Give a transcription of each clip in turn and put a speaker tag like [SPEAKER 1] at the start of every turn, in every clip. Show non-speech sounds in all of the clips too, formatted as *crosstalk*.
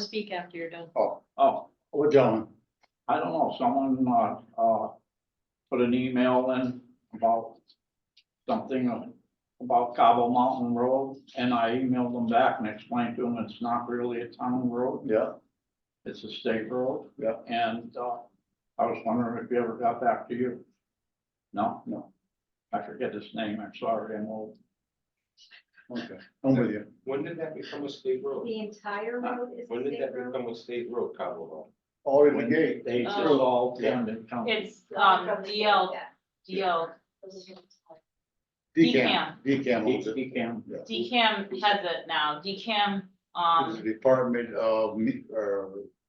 [SPEAKER 1] speak after you're done.
[SPEAKER 2] Oh,
[SPEAKER 3] Oh,
[SPEAKER 2] or John,
[SPEAKER 3] I don't know, someone, uh, uh, put an email in about something about Cabo Mountain Road, and I emailed them back and explained to them it's not really a town road,
[SPEAKER 2] yeah,
[SPEAKER 3] it's a state road.
[SPEAKER 2] Yeah.
[SPEAKER 3] And, uh, I was wondering if you ever got back to you? No?
[SPEAKER 2] No.
[SPEAKER 3] I forget his name, I'm sorry, I'm old.
[SPEAKER 2] okay, I'm with you.
[SPEAKER 4] When did that become a state road?
[SPEAKER 5] The entire road is
[SPEAKER 4] When
[SPEAKER 5] the
[SPEAKER 4] did
[SPEAKER 5] state
[SPEAKER 4] that
[SPEAKER 5] road?
[SPEAKER 4] become a state road, Cabo?
[SPEAKER 2] All in the gate,
[SPEAKER 3] They just
[SPEAKER 1] Oh.
[SPEAKER 3] all turned come.
[SPEAKER 1] It's,
[SPEAKER 5] Going
[SPEAKER 1] um,
[SPEAKER 5] from the-
[SPEAKER 1] DL,
[SPEAKER 5] yeah.
[SPEAKER 1] DL,
[SPEAKER 2] decam, decam owns it.
[SPEAKER 3] He can,
[SPEAKER 2] Yeah.
[SPEAKER 1] DCAM has it now, DCAM,
[SPEAKER 2] It's the
[SPEAKER 1] um,
[SPEAKER 2] Department of, Me- uh,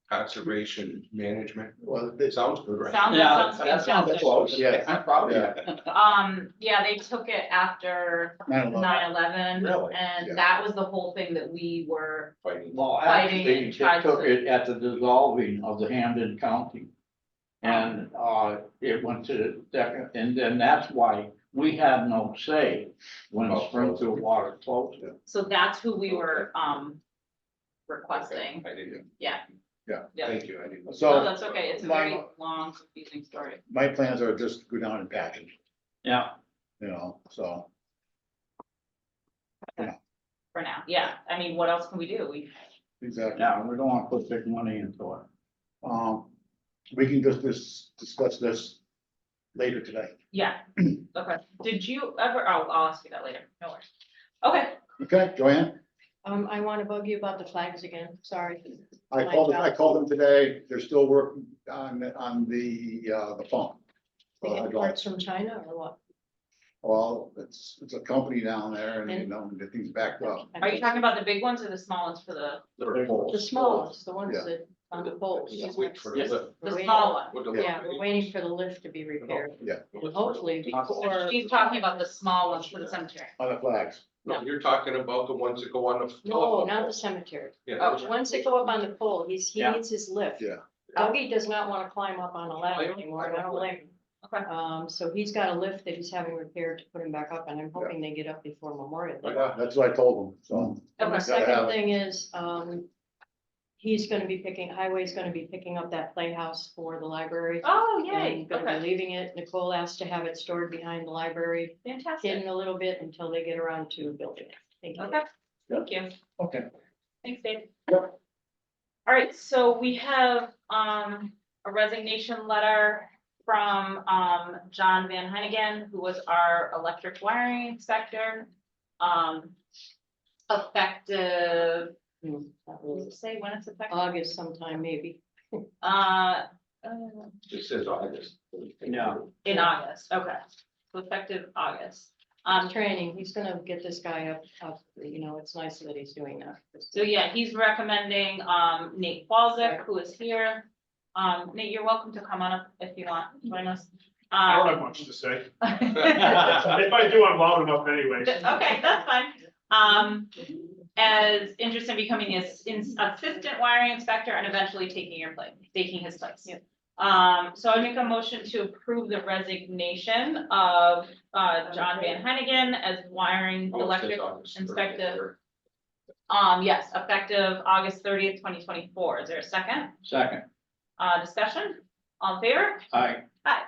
[SPEAKER 4] Conservation management.
[SPEAKER 2] well,
[SPEAKER 4] It
[SPEAKER 2] this,
[SPEAKER 4] sounds good, right?
[SPEAKER 1] sound,
[SPEAKER 3] yeah,
[SPEAKER 1] sounds
[SPEAKER 3] that sounds
[SPEAKER 1] fantastic.
[SPEAKER 3] close,
[SPEAKER 2] Yeah.
[SPEAKER 3] I'm proud of you.
[SPEAKER 1] Um, yeah, they took it after
[SPEAKER 2] 9/11.
[SPEAKER 1] nine eleven,
[SPEAKER 4] Really? Yeah.
[SPEAKER 1] and that was the whole thing that we were,
[SPEAKER 4] Fighting.
[SPEAKER 3] Well,
[SPEAKER 1] Fighting and
[SPEAKER 3] actually,
[SPEAKER 1] tried
[SPEAKER 3] it took
[SPEAKER 1] to-
[SPEAKER 3] it at the dissolving of the Hamden County. And, uh, it went to, Deca- and then that's why we had no say when
[SPEAKER 4] Oh,
[SPEAKER 3] Springfield
[SPEAKER 4] close.
[SPEAKER 3] Water closed it.
[SPEAKER 1] so that's who we were, um, requesting.
[SPEAKER 4] Okay, I didn't,
[SPEAKER 1] Yeah,
[SPEAKER 4] thank you, I didn't.
[SPEAKER 2] So-
[SPEAKER 1] no, that's okay, it's a very
[SPEAKER 2] My-
[SPEAKER 1] long, confusing story.
[SPEAKER 2] my plans are just go down and package,
[SPEAKER 3] Yeah,
[SPEAKER 2] you know, so.
[SPEAKER 1] For now, yeah, I mean, what else can we do? We,
[SPEAKER 2] Exactly.
[SPEAKER 3] yeah, we don't wanna put big money into it.
[SPEAKER 2] Um, we can just dis- discuss this later today.
[SPEAKER 1] yeah, okay, did you ever, oh, I'll ask you that later, no worries. Okay,
[SPEAKER 2] Okay, Joanne?
[SPEAKER 6] Um, I want to bug you about the flags again, sorry.
[SPEAKER 2] I
[SPEAKER 6] My
[SPEAKER 2] called, I
[SPEAKER 6] job.
[SPEAKER 2] called them today. They're still working on, on the, uh, the phone.
[SPEAKER 6] They
[SPEAKER 2] Uh,
[SPEAKER 6] get
[SPEAKER 2] John.
[SPEAKER 6] parts from China or what?
[SPEAKER 2] Well, it's, it's a company down there and, you know, the thing's backed up.
[SPEAKER 1] are you talking about the big ones or the small ones for the,
[SPEAKER 6] The smallest, the ones
[SPEAKER 2] Yeah.
[SPEAKER 6] that on the poles.
[SPEAKER 4] Yeah, wait for the lift.
[SPEAKER 1] the small one?
[SPEAKER 4] With the lift.
[SPEAKER 6] Yeah, we're waiting for the lift to be repaired,
[SPEAKER 4] Lift.
[SPEAKER 6] hopefully before.
[SPEAKER 1] She's talking about the small ones for the cemetery.
[SPEAKER 2] On the flags.
[SPEAKER 4] No, you're talking about the ones that go on the.
[SPEAKER 6] No, not the Oh, cemetery.
[SPEAKER 4] Yeah.
[SPEAKER 6] The Ones that go up on the pole, he's, he
[SPEAKER 3] Yeah.
[SPEAKER 6] needs his lift.
[SPEAKER 2] Yeah.
[SPEAKER 6] Dougie does not want to climb up on a
[SPEAKER 4] I
[SPEAKER 6] ladder
[SPEAKER 4] don't-
[SPEAKER 6] anymore,
[SPEAKER 4] I
[SPEAKER 6] and I don't
[SPEAKER 4] don't
[SPEAKER 6] blame him.
[SPEAKER 1] Okay.
[SPEAKER 6] Um, so he's got a lift that he's having repaired to put him back up, and I'm hoping they get up before Memorial. Day.
[SPEAKER 4] Yeah.
[SPEAKER 2] That's what I told them, so.
[SPEAKER 6] And the
[SPEAKER 1] Okay.
[SPEAKER 2] have
[SPEAKER 6] second
[SPEAKER 2] it.
[SPEAKER 6] thing is, um, he's gonna be picking, Highway's gonna be picking up that playhouse for the library.
[SPEAKER 1] Oh,
[SPEAKER 6] And gonna be leaving it, Nicole asked to have it stored behind the library,
[SPEAKER 1] fantastic.
[SPEAKER 6] hidden a little bit until they get around to building it. Thank you.
[SPEAKER 1] Okay, thank you. *laughs*
[SPEAKER 2] Okay.
[SPEAKER 1] Thanks, Dave. All right, so we have, um, a resignation letter from, um, John Van Heineken, who was our electric wiring inspector. Um, effective,
[SPEAKER 6] Hmm, that
[SPEAKER 1] does it
[SPEAKER 6] was
[SPEAKER 1] say when it's effective?
[SPEAKER 6] August sometime, maybe.
[SPEAKER 1] Uh, uh,
[SPEAKER 4] It says August.
[SPEAKER 3] Yeah.
[SPEAKER 1] in August, okay, So effective August. Um,
[SPEAKER 6] Training, he's gonna get this guy up, up, you know, it's nice that he's doing that.
[SPEAKER 1] So yeah, he's recommending um Nate Balzick, who is here. Um, Nate, you're welcome to come on up if you want, join us.
[SPEAKER 7] I don't
[SPEAKER 1] Um,
[SPEAKER 7] have much to say.
[SPEAKER 1] *laughs* Okay,
[SPEAKER 7] If I do, I'm loud enough anyways.
[SPEAKER 1] that's fine. Um, as interested in becoming his ins- assistant wiring inspector and eventually taking your place, taking his place.
[SPEAKER 6] Yep.
[SPEAKER 1] Um, so I make a motion to approve the resignation of uh John Van Hennigan as wiring electric inspector. Um, yes, effective August thirtieth, twenty twenty-four. Is there a second?
[SPEAKER 3] *laughs* Second,
[SPEAKER 1] Uh, discussion? All in favor?
[SPEAKER 3] I,
[SPEAKER 1] Aye.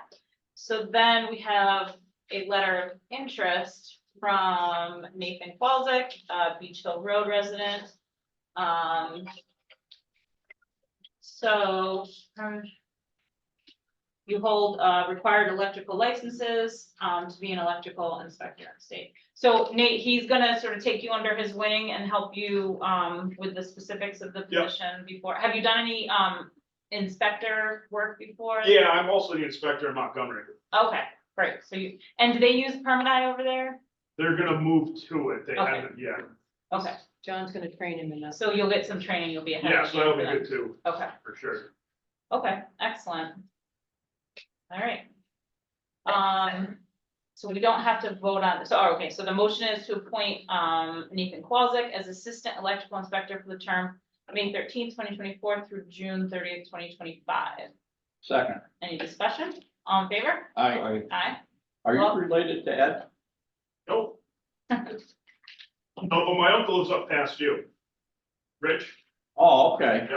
[SPEAKER 1] So then we have a letter of interest from Nathan Qualzick, uh, Beach Hill Road resident. Um. So, um, You hold, uh, required electrical licenses, um, to be an electrical inspector in the state. So Nate, he's gonna sort of take you under his wing and help you, um, with the specifics of the
[SPEAKER 7] Yep.
[SPEAKER 1] position before. Have you done any, um, inspector work before?
[SPEAKER 7] Yeah, I'm also the inspector in Montgomery.
[SPEAKER 1] Okay, great, so you, and do they use permanite over there?
[SPEAKER 7] They're gonna move to it. They
[SPEAKER 1] Okay.
[SPEAKER 7] haven't yet.
[SPEAKER 1] Okay,
[SPEAKER 6] John's gonna train him in that.
[SPEAKER 1] so you'll get some training, you'll be ahead
[SPEAKER 7] Yeah,
[SPEAKER 1] of the
[SPEAKER 7] so that'll
[SPEAKER 1] game
[SPEAKER 7] be
[SPEAKER 1] then.
[SPEAKER 7] good too,
[SPEAKER 1] Okay,
[SPEAKER 7] for sure.
[SPEAKER 1] okay, excellent. All right. Um, so we don't have to vote on, so, oh, okay, so the motion is to appoint, um, Nathan Qualzick as Assistant Electrical Inspector for the term May thirteenth, twenty twenty-four through June thirtieth, twenty twenty-five.
[SPEAKER 3] second,
[SPEAKER 1] Any discussion? All in favor?
[SPEAKER 3] I,
[SPEAKER 4] I,
[SPEAKER 1] Aye.
[SPEAKER 3] are
[SPEAKER 1] Well-
[SPEAKER 3] you related to Ed?
[SPEAKER 7] Nope. Oh, No, but my uncle lives up past you. Rich?
[SPEAKER 3] Oh, okay.